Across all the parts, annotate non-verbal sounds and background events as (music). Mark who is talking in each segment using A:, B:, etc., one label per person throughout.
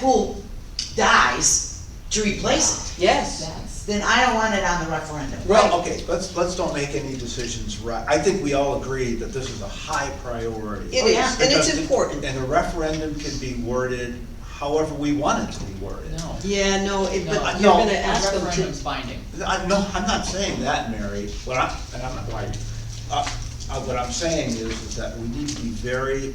A: pool dies to replace it,
B: Yes,
A: then I don't want it on the referendum.
C: Well, okay, let's, let's don't make any decisions right, I think we all agree that this is a high priority.
D: It
A: Oh, yeah.
D: is, and it's
C: Because-
D: important.
C: And the referendum can be worded however we want it to be worded. No.
D: Yeah, no, it- but
C: No.
D: you're
C: No.
D: gonna ask them
E: Referendum's
D: to,
E: binding.
C: I, no, I'm not saying that, Mary, what I, and I'm not right. Uh, uh, what I'm saying is, is that we need to be very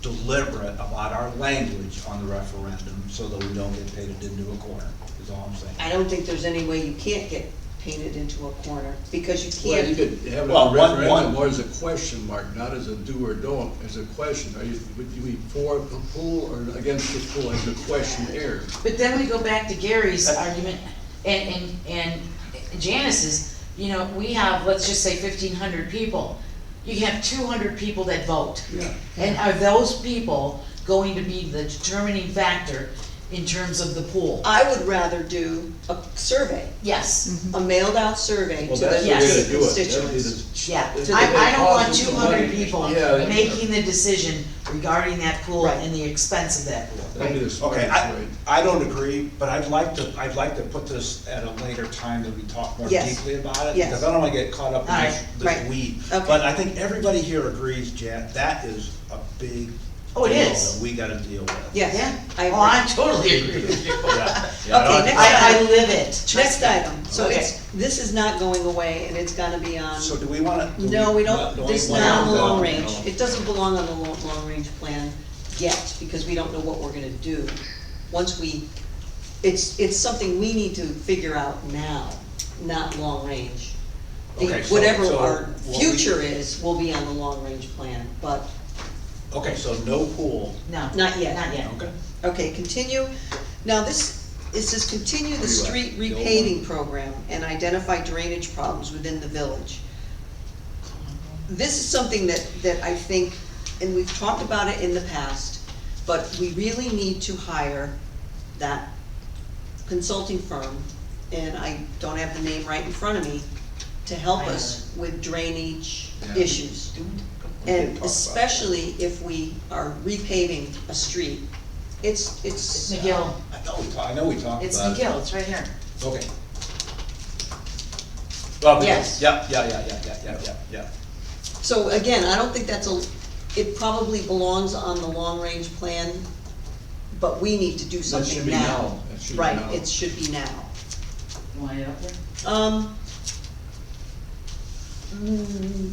C: deliberate about our language on the referendum, so that we don't get painted into a corner, is all I'm saying.
D: I don't think there's any way you can't get painted into a corner, because you
F: Well, you
D: can't.
F: could have it
C: Well,
F: on
C: one- one-
F: referendum or as a question mark, not as a do or don't, as a question. Are you, would you be for the pool or against the pool as a questionnaire?
B: but then we go back to Gary's
C: Uh,
B: argument and, and, and Janice's, you know, we have, let's just say fifteen hundred people. You have two hundred people that vote.
F: Yeah.
B: And are those people going to be the determining factor in terms of the pool?
D: I would rather do a survey,
B: Yes,
D: a mailed-out survey to
F: Well,
D: the
F: that's the way
B: Yes.
F: to
D: the
F: do it. That would be
D: constituents.
F: the-
B: yeah.
F: It's
B: I,
F: gonna
B: I don't want
F: cost us
B: two
F: some
B: hundred
F: money.
B: people
F: Yeah, that's-
B: making the decision regarding that pool
D: Right.
B: and the expense of that pool.
F: That'd be the
C: Okay,
F: smartest
C: I,
F: way.
C: I don't agree, but I'd like to, I'd like to put this at a later time that we talk more
D: Yes.
C: deeply about it.
D: Yes.
C: Because I don't wanna get caught up in this,
B: Alright,
C: this
D: right.
C: weed.
D: Okay.
C: But I think everybody here agrees, Jan, that is a big
B: Oh, it
C: deal
B: is.
C: That we gotta deal with.
B: Yeah,
D: Yes, I
B: oh, I
D: agree.
B: totally agree with you.
C: (laughs) Yeah.
D: Okay, next
B: I, I
D: item,
B: live it.
D: next item, so
B: Okay.
D: it's, this is not going away, and it's gonna be on,
C: So do we wanna? do
D: no, we
C: not-
D: don't,
C: do we
D: this is
C: wanna-
D: not on the
C: no,
D: long
C: no.
D: range. It doesn't belong on the long, long-range plan yet, because we don't know what we're gonna do. Once we, it's, it's something we need to figure out now, not long-range. The-
C: Okay, so-
D: Whatever
C: so
D: our
C: what we-
D: future is, will be on the long-range plan, but
C: Okay, so no pool.
B: No.
D: Not yet.
B: Not yet.
C: Okay.
D: Okay, continue, now this, it says continue the
F: Where you
D: street
F: at? The old
D: repaving program and identify drainage problems within the village. This is something that, that I think, and we've talked about it in the past, but we really need to hire that consulting firm, and I don't have the name right in front of me, to help us with drainage
F: Yeah.
D: issues.
C: We did talk
D: And
C: about that.
D: especially if we are repaving a street, it's,
B: It's
D: it's,
B: McGill,
C: I know we talked, I know we talked about it.
B: it's McGill, it's right here.
C: Okay. Well,
B: Yes.
C: because, yeah, yeah, yeah, yeah, yeah, yeah, yeah, yeah.
D: so again, I don't think that's a, it probably belongs on the long-range plan, but we need to do
F: That should
D: something
F: be
D: now.
F: now. That should be now.
D: Right, it should be now.
B: You want it up there?
D: Um. mm,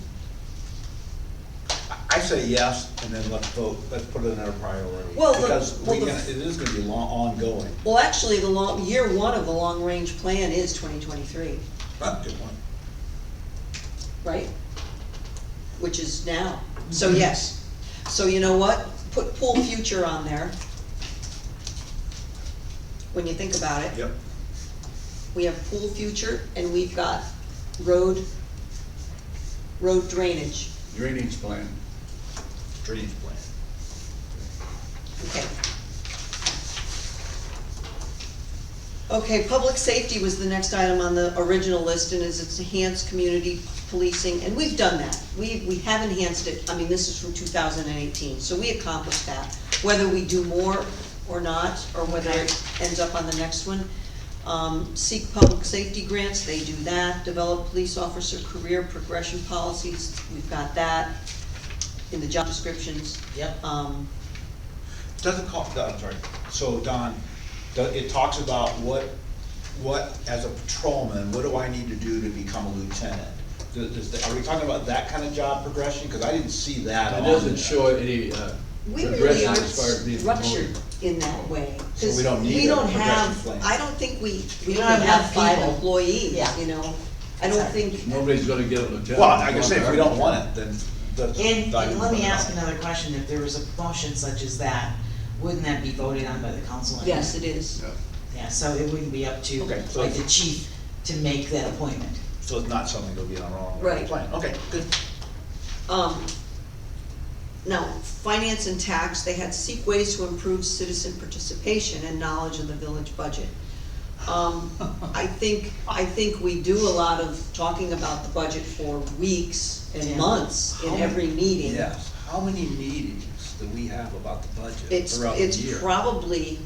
C: I- I say yes, and then let's vote, let's put it in our priority.
D: Well, the-
C: Because
D: well,
C: we
D: the-
C: can, it is gonna be long, ongoing.
D: Well, actually, the long, year one of the long-range plan is twenty twenty-three,
C: Ah, Good one.
D: right? Which is now, so yes. So you know what? Put pool future on there. When you think about it.
C: Yep.
D: we have pool future, and we've got road, road drainage,
F: Drainage plan.
C: Drainage plan.
D: okay. Okay, public safety was the next item on the original list, and is it's enhanced community policing, and we've done that. We, we have enhanced it, I mean, this is from two thousand and eighteen, so we accomplished that. Whether we do more or not, or whether it ends up on the next one. Um, seek public safety grants, they do that. Develop police officer career progression policies, we've got that in the job descriptions.
B: Yep.
D: Um,
C: Doesn't call, no, I'm sorry, so Don, do- it talks about what, what, as a patrolman, what do I need to do to become a lieutenant? Does- does- are we talking about that kind of job progression? Cause I didn't see that
F: It
C: on
F: doesn't
C: there.
F: show any, uh,
D: We really
F: progression
D: aren't
F: as far as being
D: structured
F: promoted.
D: in that way.
C: So we
D: 'cause
C: don't need
D: we
C: a
D: don't
C: progression
D: have-
C: plan.
D: I don't think we, we
B: We
D: don't
B: don't
D: have
B: have
D: five
B: people.
D: employees,
B: Yeah.
D: you know? I don't
B: Exactly.
D: think,
F: Nobody's gonna get a lieutenant.
C: Well, I can say if we don't want it, then. that's-
B: And,
C: I can
B: and let
C: put
B: me
C: it
B: ask
C: on.
B: another question, if there was a motion such as that, wouldn't that be voted on by the council? anyway?
D: yes, it is.
F: Yeah.
B: Yeah, so it wouldn't be up to,
C: Okay, so-
B: like, the chief to make that appointment.
C: So it's not something that'll be on our own
D: Right.
C: plan, okay, good.
D: Um, now, finance and tax, they had seek ways to improve citizen participation and knowledge of the village budget.
C: (laughs)
D: Um, I think, I think we do a lot of talking about the budget for weeks and
B: Yeah.
D: months in
C: How
D: every meeting.
C: Yes, how many meetings do we have about the budget
D: It's,
C: throughout the year?
D: it's probably